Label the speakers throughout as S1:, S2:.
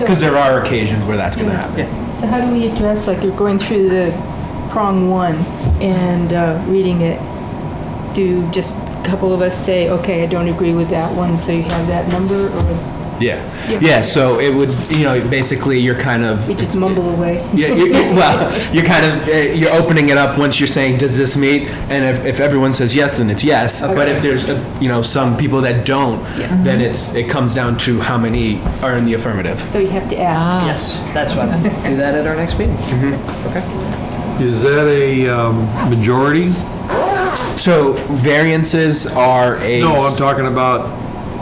S1: Because there are occasions where that's going to happen.
S2: So how do we address, like, you're going through the prong one and uh, reading it? Do just a couple of us say, okay, I don't agree with that one, so you have that number, or
S1: Yeah. Yeah, so it would, you know, basically you're kind of.
S2: we just mumble away?
S1: Yeah, you, you, well, you're kind of, uh, you're opening it up once you're saying, does this meet? And if, if everyone says yes, then it's yes. But if there's, uh, you know, some people that don't, then it's, it comes down to how many are in the affirmative.
S2: So you have to
S3: Ah,
S2: ask.
S4: Yes, that's what, do that at our next meeting. Okay.
S5: Is that a um, majority?
S1: So variances are a.
S5: No, I'm talking about,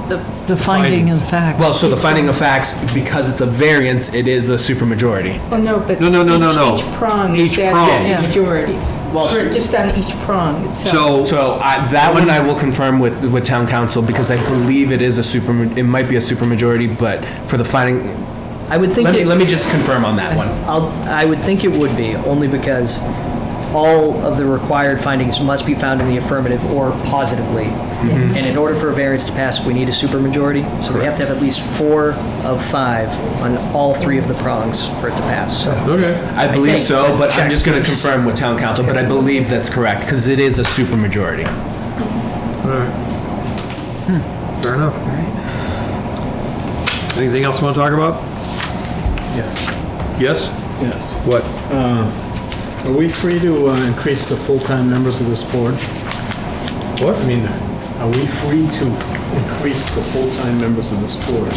S3: The the finding of fact.
S1: Well, so the finding of facts, because it's a variance, it is a supermajority.
S2: Well, no, but.
S5: No, no, no, no,
S2: each-
S5: no.
S2: Each prong
S5: Each
S2: is
S5: prong.
S2: that
S3: Yeah.
S2: majority.
S4: Well-
S2: For- Just on each prong itself.
S5: so,
S1: So I, that one I will confirm with, with town council because I believe it is a super, it might be a supermajority, but for the finding,
S4: I would think,
S1: let me,
S4: it-
S1: let me just confirm on that one.
S4: I'll, I would think it would be, only because all of the required findings must be found in the affirmative or positively. And in order for a variance to pass, we need a supermajority, so we have to have at least four of five on all three of the prongs for it to pass, so.
S5: okay,
S1: I believe
S4: think,
S1: so,
S4: but
S1: but I'm
S4: check.
S1: just gonna confirm with town council, but I believe that's correct, because it is a supermajority.
S5: all right. hmm, Fair enough. Anything else you want to talk about?
S6: Yes,
S5: Yes?
S6: yes.
S5: What?
S6: Are we free to uh, increase the full-time members of this board?
S5: What?
S6: I mean, are we free to increase the full-time members of this board? I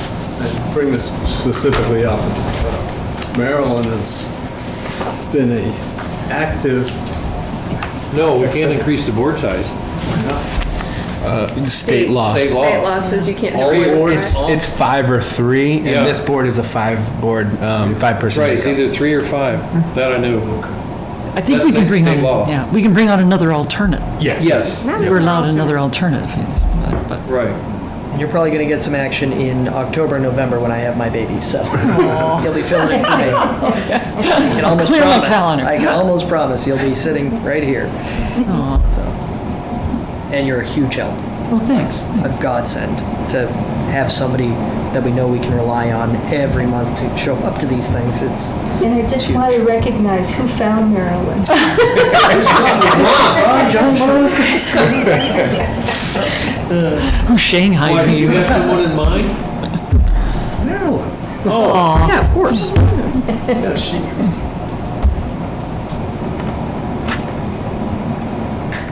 S6: bring this specifically up. Maryland has been a active,
S5: No, we can't increase the board size.
S1: State law.
S5: State law.
S7: State law says you can't. have
S5: All
S7: more than
S5: boards-
S7: that.
S1: It's, it's five or three,
S5: Yeah.
S1: and this board is a five board, um, five person.
S5: Right, it's either three or five, that I knew.
S3: I think we
S5: that's
S3: can bring
S5: state
S3: on,
S5: law.
S3: yeah, we can bring on another alternate.
S5: Yes,
S3: We're allowed another alternative, yeah, but
S5: right.
S4: You're probably going to get some action in October, and November when I have my baby, so you'll be filling in for me. I can almost
S3: Clear my
S4: promise.
S3: calendar.
S4: I can almost promise you'll be sitting right here. So, and you're a huge help,
S3: Well, thanks.
S4: a godsend to have somebody that we know we can rely on every month to show up to these things. It's
S2: And I just want to recognize who found Maryland.
S3: Who Shanghai you?
S5: someone in mind?
S4: yeah, of course.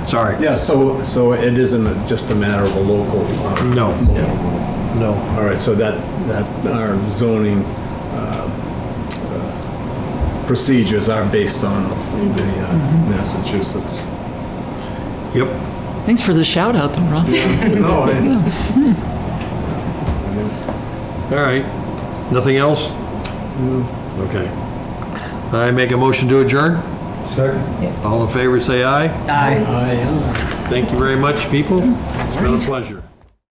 S5: Sorry.
S6: yeah, so, so it isn't just a matter of a local. uh,
S5: No.
S6: local-
S5: No.
S6: All right, so that, that, our zoning uh, uh, procedures are based on the uh, Massachusetts.
S5: Yep.
S3: Thanks for the shout out though, Ron.
S6: No, I-
S5: All right. Nothing else? Okay. I make a motion to adjourn? Second. All in favor, say aye.
S4: I
S6: I, uh,
S5: Thank you very much, people. It's been a pleasure.